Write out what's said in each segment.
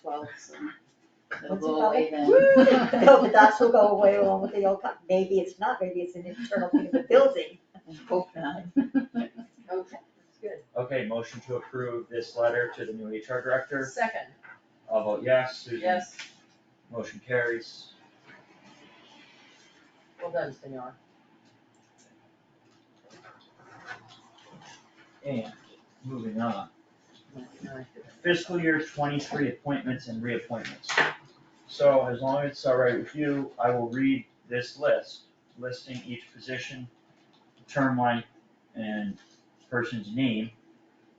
twelfths and the What's it whole called? way then. No, but that's will go away along with the old, co- maybe it's not, maybe it's an internal thing of the building. Hope not. Okay. That's good. Okay, motion to approve this letter to the new HR director. Second, I'll vote yes, Susan. yes, Motion carries. well done, senor. And moving on, No, no, I did it. fiscal year twenty-three appointments and reappointments. So as long as it's all right with you, I will read this list, listing each position, term length, and person's name.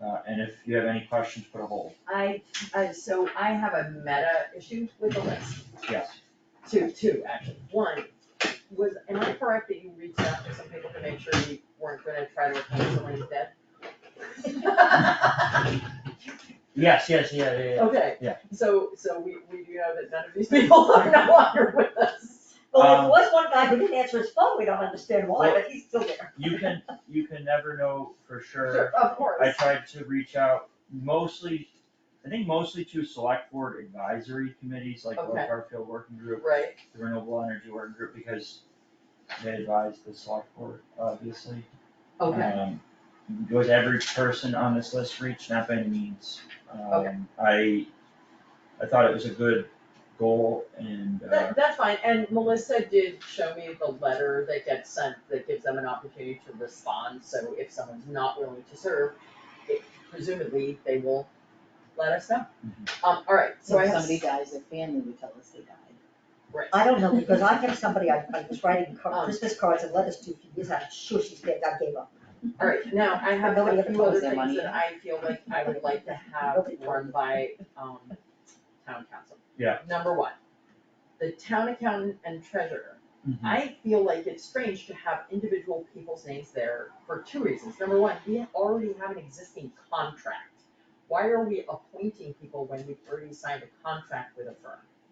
Uh, and if you have any questions, put a hold. I, I, so I have a meta issue with the list, Yes, two, two, actually, one, was, am I correct that you reached out to some people to make sure you weren't gonna try to appoint someone who's dead? yes, yes, yeah, yeah, yeah. Okay. Yeah. So, so we, we do know that none of these people are no longer with us. Well, Um, there was one guy who didn't answer his phone, we don't understand why, Well- but he's still there. You can, you can never know for Sure, of course. I tried to reach out mostly, I think mostly to select board advisory committees like the Okay. Garfield Working Group, Right, the Renewable Energy Working Group, because they advise the select board, obviously. okay, Um, Was every person on this list reached? Not by any means. Okay. Um, I, I thought it was a good goal and, uh, that, that's fine, and Melissa did show me the letter that gets sent, that gives them an opportunity to respond, so if someone's not willing to serve, it- presumably, they will let us know. Um, alright, so So I if have, somebody dies, their family would tell us they died. I don't know, because I had somebody, I, I was writing Um. car- Christmas cards and letters to, for years, I'm sure she's dead, I gave up. alright, now, I have Nobody a ever few calls other their things money that in. I feel like I would like to have Nobody calls run by, um, town council. Yeah. Number one, the town accountant and treasurer mhm. I feel like it's strange to have individual people's names there for two reasons. Number one, we already have an existing contract. Why are we appointing people when we've already signed a contract with a firm?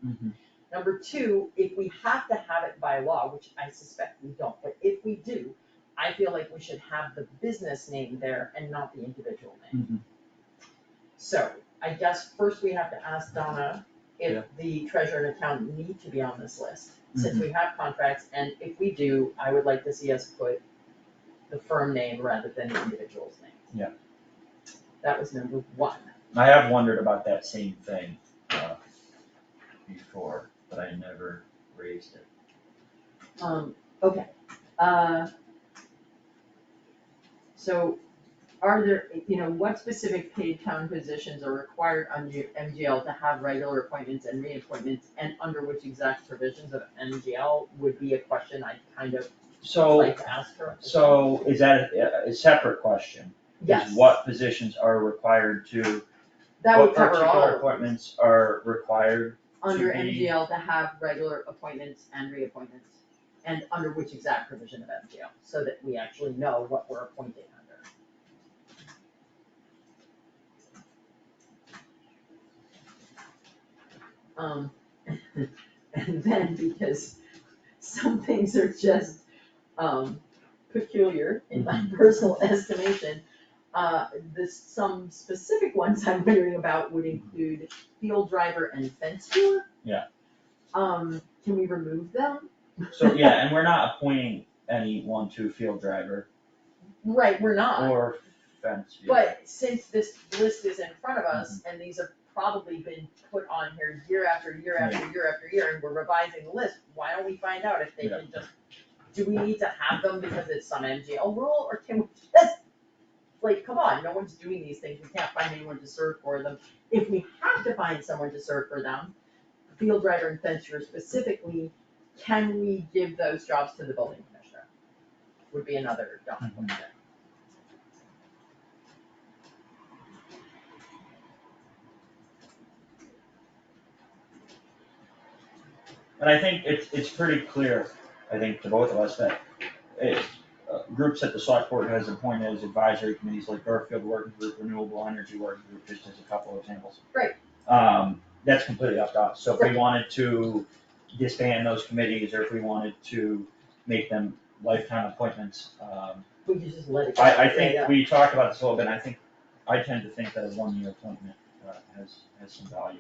Mhm. Number two, if we have to have it by law, which I suspect we don't, but if we do, I feel like we should have the business name there and not the individual name. Mhm. So I guess first we have to ask Donna Yeah. Mm-hmm. if the treasurer and accountant need to be on this list, since we have contracts, and if we do, I would like to see us put the firm name rather than the individual's name. Yeah. That was number one. I have wondered about that same thing, uh, before, but I never raised it. Um, okay, uh. So are there, you know, what specific paid town positions are required under MGL to have regular appointments and reappointments? And under which exact provisions of MGL would be a question I kind of So, like to ask her. so is that a, a separate question? Is Yes, What positions are required to, that what would cover all. particular appointments are required? Under to be- MGL to have regular appointments and reappointments. And under which exact provision of MGL, so that we actually know what we're appointing under. Um, and then because some things are just, um, peculiar in my personal estimation. Uh, this, some specific ones I'm wondering about would include field driver and fence viewer. Yeah. Um, can we remove them? So, yeah, and we're not appointing any one, two field driver Right, we're not. or fence viewer. Uh-uh. But since this list is in front of us, and these have probably been put on here year after year after year after year, and we're revising the list, why don't we find out if they can just, do we need to have them because it's some MGL rule, or can we just, like, come on, no one's doing these things, we can't find anyone to serve for them. If we have to find someone to serve for them, field writer and fencer specifically, can we give those jobs to the building commissioner? Would be another dumb Mhm. question. And I think it's, it's pretty clear, I think to both of us, that it, uh, groups that the select board has appointed as advisory committees like Garfield Working Group, Renewable Energy Working Group, just as a couple of examples. Right. Um, that's completely up to us, so if we Right. wanted to disband those committees, or if we wanted to make them lifetime appointments, um, We could just let it go. I, I Yeah, think yeah. we talked about this a little bit, and I think, I tend to think that a one-year appointment, uh, has, has some value.